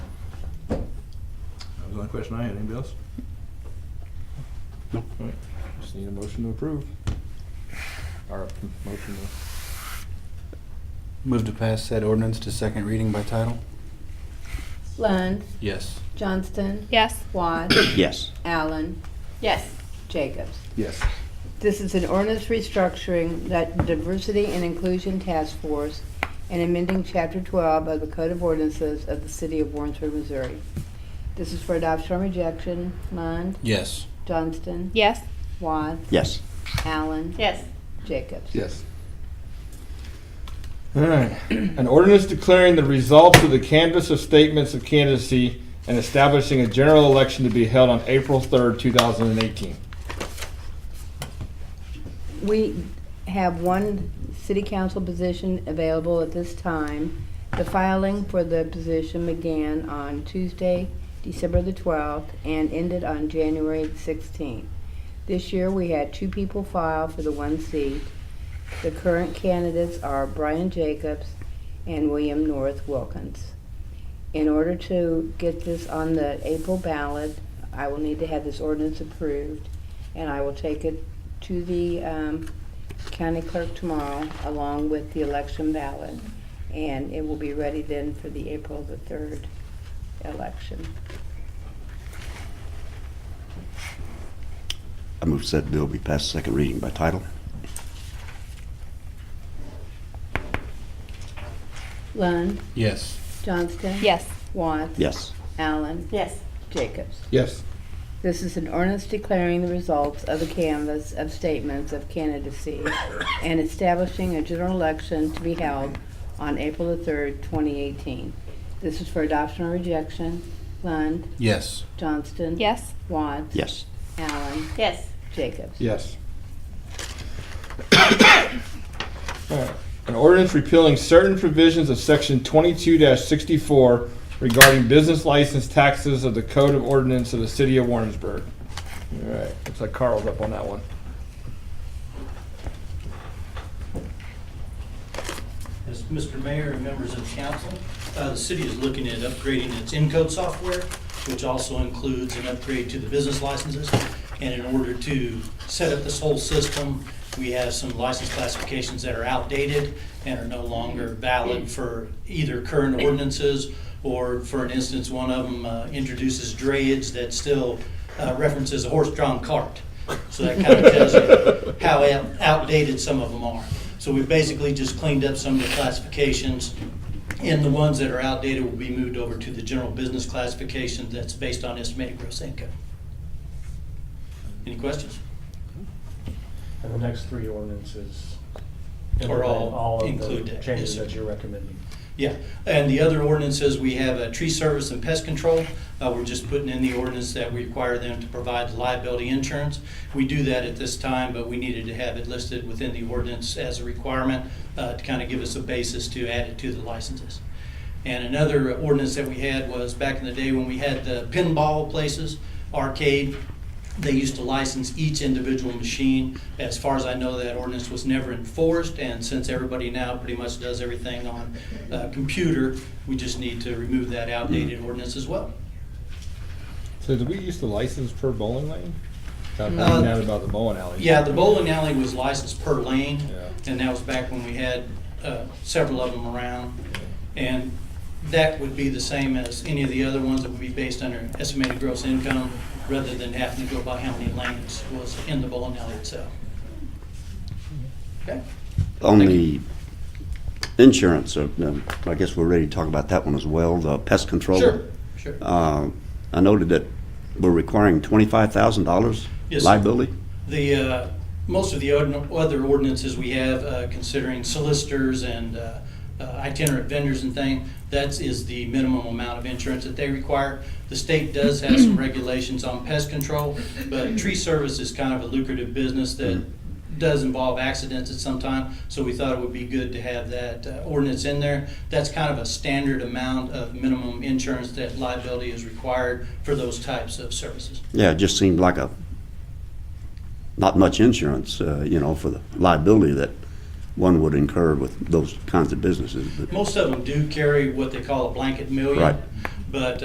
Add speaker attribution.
Speaker 1: the only question I had. Anybody else?
Speaker 2: No.
Speaker 1: All right, just need a motion to approve. Or a motion to,
Speaker 2: Move to pass said ordinance to second reading by title?
Speaker 3: Lund,
Speaker 2: Yes.
Speaker 3: Johnston,
Speaker 4: Yes.
Speaker 3: Watts,
Speaker 5: Yes.
Speaker 3: Allen,
Speaker 4: Yes.
Speaker 3: Jacobs.
Speaker 1: yes.
Speaker 3: This is an ordinance restructuring that Diversity and Inclusion Task Force and amending Chapter 12 of the Code of Ordinances of the City of Warrensburg, Missouri. This is for adoption or rejection. Lund,
Speaker 2: Yes.
Speaker 3: Johnston,
Speaker 4: Yes.
Speaker 3: Watts,
Speaker 5: Yes.
Speaker 3: Allen,
Speaker 4: Yes.
Speaker 3: Jacobs.
Speaker 1: Yes. All right. An ordinance declaring the results of the canvass of statements of candidacy and establishing a general election to be held on April third, two thousand and eighteen.
Speaker 3: We have one city council position available at this time. The filing for the position began on Tuesday, December the 12th, and ended on January the 16th. This year, we had two people file for the one seat. The current candidates are Brian Jacobs and William North Wilkins. In order to get this on the April ballot, I will need to have this ordinance approved, and I will take it to the um, county clerk tomorrow, along with the election ballot, and it will be ready then for the April the 3rd election.
Speaker 5: I move said bill be passed second reading by title.
Speaker 3: Lund,
Speaker 2: Yes.
Speaker 3: Johnston.
Speaker 4: Yes.
Speaker 3: Watts.
Speaker 5: Yes.
Speaker 3: Allen.
Speaker 4: Yes.
Speaker 3: Jacobs.
Speaker 1: Yes.
Speaker 3: This is an ordinance declaring the results of the canvass of statements of candidacy and establishing a general election to be held on April the 3rd, 2018. This is for adoption or rejection. Lund,
Speaker 2: Yes.
Speaker 3: Johnston.
Speaker 4: Yes.
Speaker 3: Watts.
Speaker 5: Yes.
Speaker 3: Allen.
Speaker 4: Yes.
Speaker 3: Jacobs.
Speaker 1: Yes. An ordinance repealing certain provisions of section twenty-two sixty-four regarding business license taxes of the Code of Ordinance of the City of Warrensburg. All right, looks like Carl's up on that one.
Speaker 6: As Mr. Mayor and members of council, uh, the city is looking at upgrading its Encode software, which also includes an upgrade to the business licenses. And in order to set up this whole system, we have some license classifications that are outdated and are no longer valid for either current ordinances or, for an instance, one of them uh, introduces drayage that still uh, references a horse-drawn cart. So that kind of tells you how out- outdated some of them are. So we basically just cleaned up some of the classifications, and the ones that are outdated will be moved over to the general business classification that's based on estimated gross income. Any questions?
Speaker 7: And the next three ordinances.
Speaker 6: Are all
Speaker 7: of
Speaker 6: included,
Speaker 7: the
Speaker 6: yes,
Speaker 7: changes
Speaker 6: sir.
Speaker 7: that you're recommending.
Speaker 6: Yeah, and the other ordinances, we have a tree service and pest control. Uh, We're just putting in the ordinance that we require them to provide liability insurance. We do that at this time, but we needed to have it listed within the ordinance as a requirement uh, to kind of give us a basis to add it to the licenses. And another ordinance that we had was back in the day when we had the pinball places, arcade, they used to license each individual machine. As far as I know, that ordinance was never enforced, and since everybody now pretty much does everything on uh, computer, we just need to remove that outdated ordinance as well.
Speaker 1: So did we use the license per bowling lane? I found
Speaker 6: Uh,
Speaker 1: out about the bowling alley.
Speaker 6: Yeah, the bowling alley was licensed per lane,
Speaker 1: Yeah.
Speaker 6: and that was back when we had uh, several of them around. And that would be the same as any of the other ones that would be based under estimated gross income, rather than having to go by how many lanes was in the bowling alley itself. Okay?
Speaker 5: On the insurance, uh, um, I guess we're ready to talk about that one as well, the pest control.
Speaker 6: Sure, sure.
Speaker 5: Uh, I noted that we're requiring twenty-five thousand dollars
Speaker 6: Yes, sir.
Speaker 5: liability.
Speaker 6: The, uh, most of the od- other ordinances we have, uh, considering solicitors and uh, uh, itinerant vendors and thing, that is the minimum amount of insurance that they require. The state does have some regulations on pest control, but tree service is kind of a lucrative business that does involve accidents at some time, so we thought it would be good to have that uh, ordinance in there. That's kind of a standard amount of minimum insurance that liability is required for those types of services.
Speaker 5: Yeah, it just seemed like a, not much insurance, uh, you know, for the liability that one would incur with those kinds of businesses, but.
Speaker 6: Most of them do carry what they call a blanket million.
Speaker 5: Right.
Speaker 6: But